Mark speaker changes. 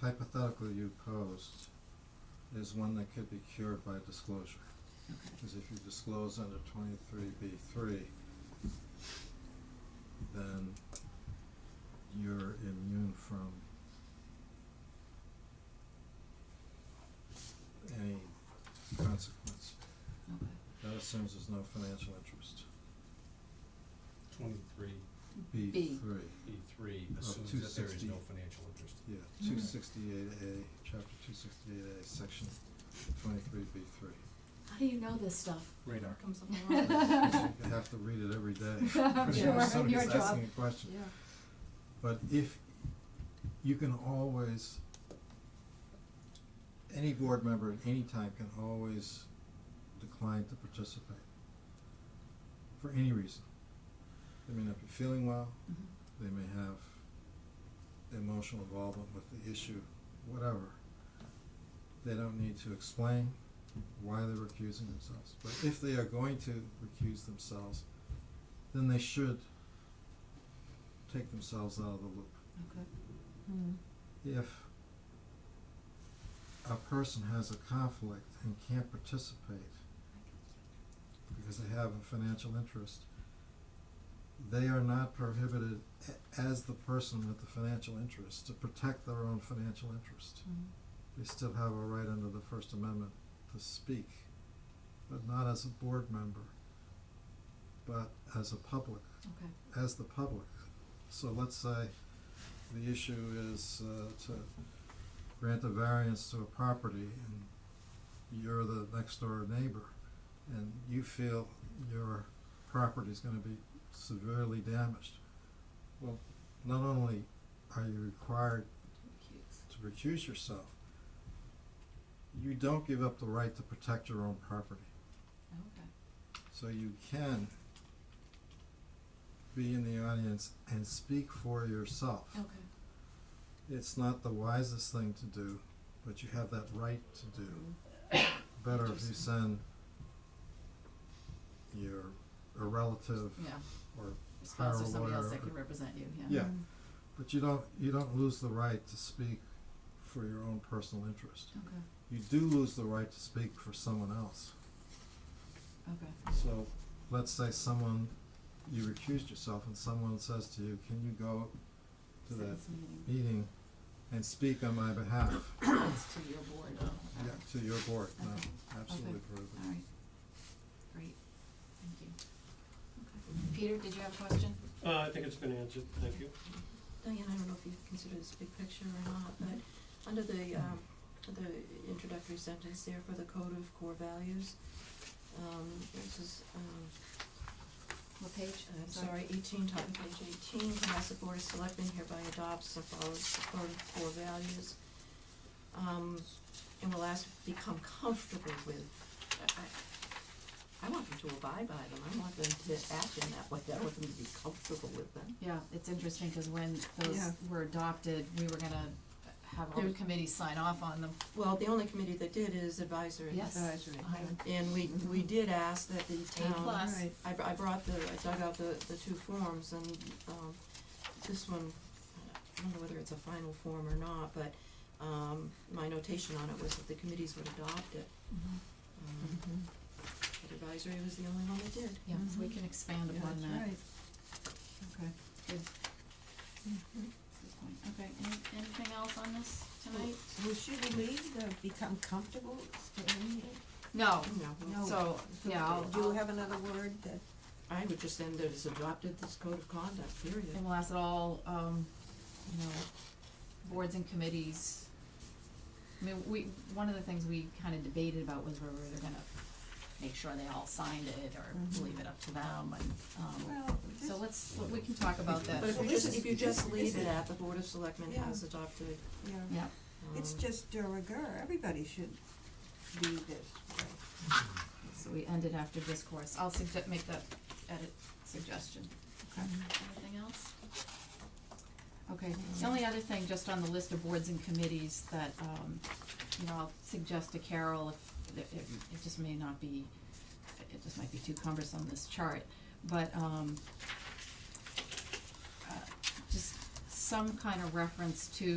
Speaker 1: hypothetical you posed is one that could be cured by disclosure. Because if you disclose under twenty-three B three, then you're immune from any consequence.
Speaker 2: Okay.
Speaker 1: That assumes there's no financial interest.
Speaker 3: Twenty-three
Speaker 1: B
Speaker 2: B.
Speaker 1: three,
Speaker 3: E three
Speaker 1: Of
Speaker 3: assumes
Speaker 1: Uh, two
Speaker 3: that there is
Speaker 1: sixty.
Speaker 3: no financial interest.
Speaker 1: yeah,
Speaker 2: Mm.
Speaker 1: two sixty-eight A, chapter two sixty-eight A, section twenty-three B three.
Speaker 2: How do you know this stuff?
Speaker 3: Radar.
Speaker 4: comes up a lot.
Speaker 1: You have to read it every day. Pretty
Speaker 2: Sure,
Speaker 1: much somebody's
Speaker 2: your job.
Speaker 1: asking a question.
Speaker 4: Yeah.
Speaker 1: But if, you can always, any board member at any time can always decline to participate for any reason. They may not be feeling well,
Speaker 2: Mhm.
Speaker 1: they may have emotional involvement with the issue, whatever. They don't need to explain why they're recusing themselves. But if they are going to recuse themselves, then they should take themselves out of the loop.
Speaker 2: Okay. Hmm.
Speaker 1: If a person has a conflict and can't participate because they have a financial interest, they are not prohibited a- as the person with the financial interest to protect their own financial interest. They still have a right under the First Amendment to speak, but not as a board member, but as a public
Speaker 2: Okay.
Speaker 1: as the public. So let's say the issue is uh, to grant a variance to a property and you're the next door neighbor and you feel your property is gonna be severely damaged. Well, not only are you required to recuse yourself, you don't give up the right to protect your own property.
Speaker 2: Okay.
Speaker 1: So you can be in the audience and speak for yourself.
Speaker 2: Okay.
Speaker 1: It's not the wisest thing to do, but you have that right to do. Better if you
Speaker 2: Interesting.
Speaker 1: send your a relative,
Speaker 2: Yeah.
Speaker 1: Or
Speaker 2: A spouse
Speaker 1: hire
Speaker 2: or
Speaker 1: a
Speaker 2: somebody else
Speaker 1: lawyer
Speaker 2: that can
Speaker 1: or-
Speaker 2: represent you, yeah.
Speaker 4: Hmm.
Speaker 1: Yeah. but you don't you don't lose the right to speak for your own personal interest.
Speaker 2: Okay.
Speaker 1: You do lose the right to speak for someone else.
Speaker 2: Okay.
Speaker 1: So let's say someone you recused yourself and someone says to you, Can you go to that
Speaker 2: Citizens meeting.
Speaker 1: meeting and speak on my behalf
Speaker 2: It's to your board.
Speaker 1: yeah,
Speaker 2: Okay.
Speaker 1: to your board. No,
Speaker 2: Okay.
Speaker 1: absolutely proven.
Speaker 2: All right. Great. Thank you. Okay. Peter, did you have a question?
Speaker 5: Uh, I think it's been answered, thank you.
Speaker 4: Diane, I don't know if you consider this big picture or not, but under the, um, the introductory sentence there for the code of core values, um, this is, um,
Speaker 2: What page?
Speaker 4: I'm sorry, eighteen, top of page eighteen, Cohasset Board of Selectmen hereby adopts the following code of core values. Um, and will ask, become comfortable with, I, I, I want them to abide by them, I want them to act in that way, I want them to be comfortable with them.
Speaker 2: Yeah, it's interesting, cause when those
Speaker 4: Yeah.
Speaker 2: were adopted, we were gonna have all the
Speaker 4: There's-
Speaker 2: committees sign off on them.
Speaker 4: Well, the only committee that did is advisory.
Speaker 2: Yes. Uh-huh.
Speaker 6: Advisory.
Speaker 2: I-
Speaker 4: And we, we did ask that the
Speaker 2: A
Speaker 4: town.
Speaker 2: plus.
Speaker 6: Right.
Speaker 4: I, br- I brought the, I dug out the, the two forms and, um, this one, I don't know whether it's a final form or not, but, um, my notation on it was that the committees would adopt it.
Speaker 2: Mhm.
Speaker 4: Um, but advisory was the only one that did. Mm-hmm.
Speaker 2: Yeah, so we can expand
Speaker 6: Yeah,
Speaker 2: upon
Speaker 6: that's
Speaker 2: that.
Speaker 6: right.
Speaker 2: Okay. Good. Good point. Mm-hmm. Okay, any, anything else on this tonight?
Speaker 6: Well, should we leave the become comfortable staying
Speaker 2: No,
Speaker 4: oh, No,
Speaker 6: No.
Speaker 2: so, yeah, I'll,
Speaker 6: Do you
Speaker 2: I'll,
Speaker 6: have another word that,
Speaker 4: I would just end that it's adopted this code of conduct, period.
Speaker 2: and we'll ask it all, um, you know, boards and committees. I mean, we, one of the things we kinda debated about was whether they're gonna make sure they all signed it
Speaker 6: Mhm.
Speaker 2: or leave it up to them and, um,
Speaker 6: well, this,
Speaker 2: so let's, we can talk about that.
Speaker 4: But if you
Speaker 6: Well, this
Speaker 4: just,
Speaker 6: is-
Speaker 4: if you just
Speaker 6: this
Speaker 4: leave
Speaker 6: is-
Speaker 4: it at the Board of Selectmen
Speaker 6: Yeah.
Speaker 4: has adopted,
Speaker 6: yeah,
Speaker 2: Yeah,
Speaker 4: um,
Speaker 6: it's just de rigueur, everybody should be this way.
Speaker 2: so we ended after discourse. I'll sugge- make that edit suggestion.
Speaker 6: Okay.
Speaker 2: Anything else? Okay, the only other thing, just on the list of boards and committees that, um, you know, I'll suggest to Carol if, if, it just may not be, it just might be too cumbersome, this chart, but, um, uh, just some kind of reference to